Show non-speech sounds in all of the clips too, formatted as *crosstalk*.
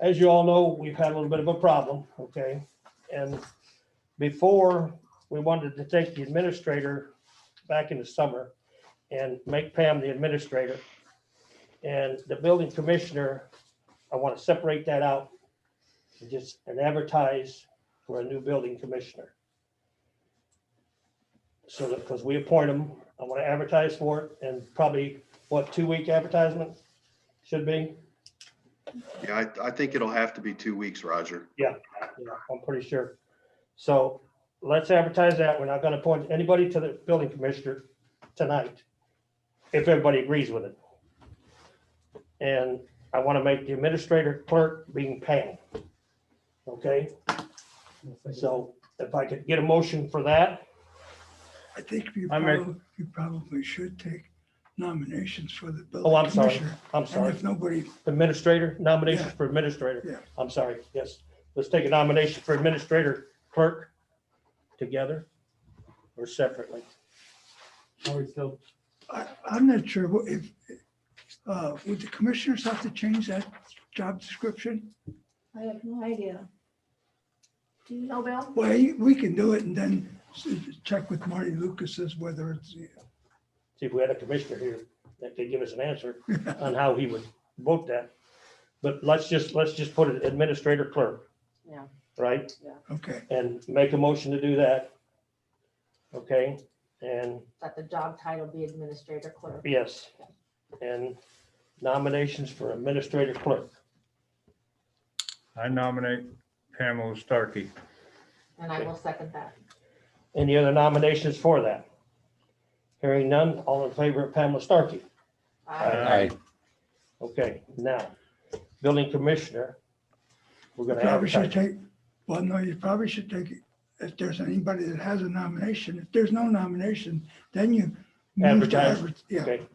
as you all know, we've had a little bit of a problem, okay? And before, we wanted to take the administrator back in the summer and make Pam the administrator. And the building commissioner, I want to separate that out and just and advertise for a new building commissioner. So that, because we appoint them, I want to advertise for it and probably, what, two-week advertisement should be? Yeah, I, I think it'll have to be two weeks, Roger. Yeah, I'm pretty sure. So let's advertise that. We're not gonna appoint anybody to the building commissioner tonight. If everybody agrees with it. And I wanna make the administrator clerk being Pam. Okay, so if I could get a motion for that, I think you I make- probably, you probably should take nominations for the oh, building I'm sorry, commissioner. I'm And sorry. if nobody, Administrator, nomination Yeah. for Yeah. administrator. I'm sorry, yes. Let's take a nomination for administrator clerk together or separately. Are we still, I, I'm not sure what- if, uh, would the commissioners have to change that job description? I have no idea. Do you know, Bill? Well, you- we can do it and then s- check with Marty Lucas as whether it's, see if we had a commissioner here that could give us an *laughs* answer on how he would vote that. But let's just, let's just put it administrator clerk. Yeah. Right? okay. And make a motion to do that. Okay, and that the job title be administrator clerk. yes, and nominations for administrator clerk. I nominate Pamela Starkey. And I will second that. Any other nominations for that? Hearing none, all in favor of Pamela Starkey? I Aye. Okay, now, building commissioner. We're gonna Probably should advertise. take, well, no, you probably should take, it if there's anybody that has a nomination, if there's no nomination, then you. move to Advertise. adver- Yeah, Okay.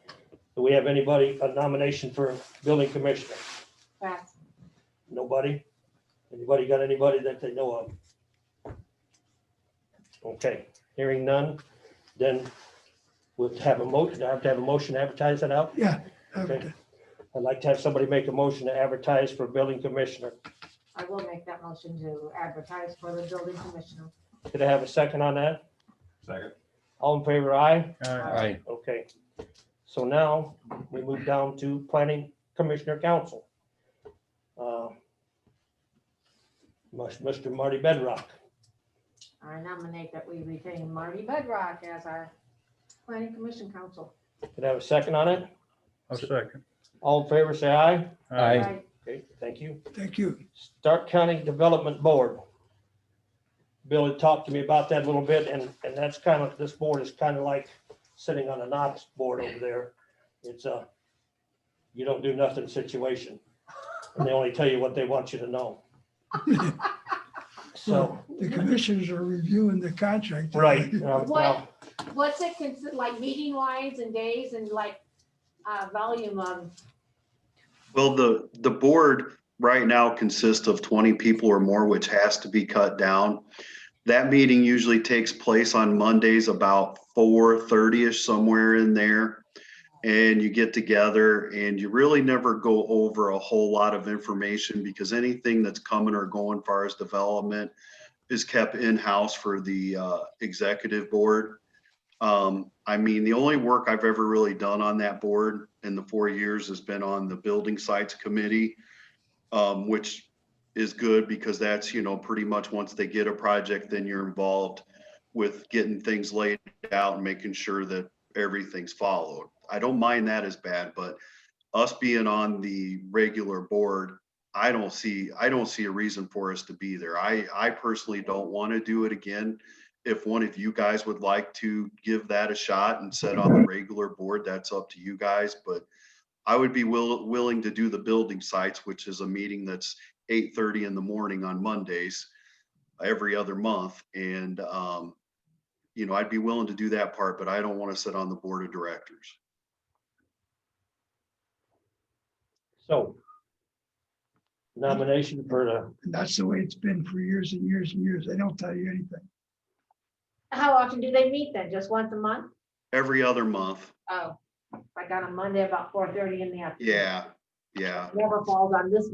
Do we have anybody, a nomination for building commissioner? pass. Nobody? Anybody got anybody that they know of? Okay, hearing none, then we'll have a motion, I have to have a motion advertise that out. yeah. advertise. I'd like to have somebody make a motion to advertise for building commissioner. I will make that motion to advertise for the building commissioner. Could I have a second on that? Second. All in favor, aye? Aye. Aye. Okay. So now we move down to planning commissioner council. Uh, Must, Mr. Marty Bedrock. I nominate that we retain Marty Bedrock as our planning commission council. Could I have a second on it? I'll second. All in favor, say aye. Aye. I Okay, thank you. Thank you. Stark County Development Board. Bill had talked to me about that a little bit, and, and that's kind of, this board is kind of like sitting on a Knox board over there. It's a you don't do nothing situation. And they only tell you what they want you to know. So, Well, The commissioners are reviewing the contract. right, uh, well, What's it consider, like meeting lines and days and like uh, volume of, Well, the, the board right now consists of 20 people or more, which has to be cut down. That meeting usually takes place on Mondays about 4:30-ish, somewhere in there. And you get together and you really never go over a whole lot of information because anything that's coming or going far as development is kept in-house for the uh, executive board. Um, I mean, the only work I've ever really done on that board in the four years has been on the building sites committee. Um, which is good because that's, you know, pretty much once they get a project, then you're involved with getting things laid out and making sure that everything's followed. I don't mind that as bad, but us being on the regular board, I don't see, I don't see a reason for us to be there. I, I personally don't want to do it again if one of you guys would like to give that a shot and set on the regular board, that's up to you guys, but I would be will, willing to do the building sites, which is a meeting that's eight thirty in the morning on Mondays every other month, and, um, you know, I'd be willing to do that part, but I don't want to sit on the board of directors. so. Nomination for the, And that's the way it's been for years and years and years. They don't tell you anything. how often do they meet then? Just once a month? Every other month, Oh, like on a Monday about four thirty in the afternoon. yeah, yeah. Never falls on this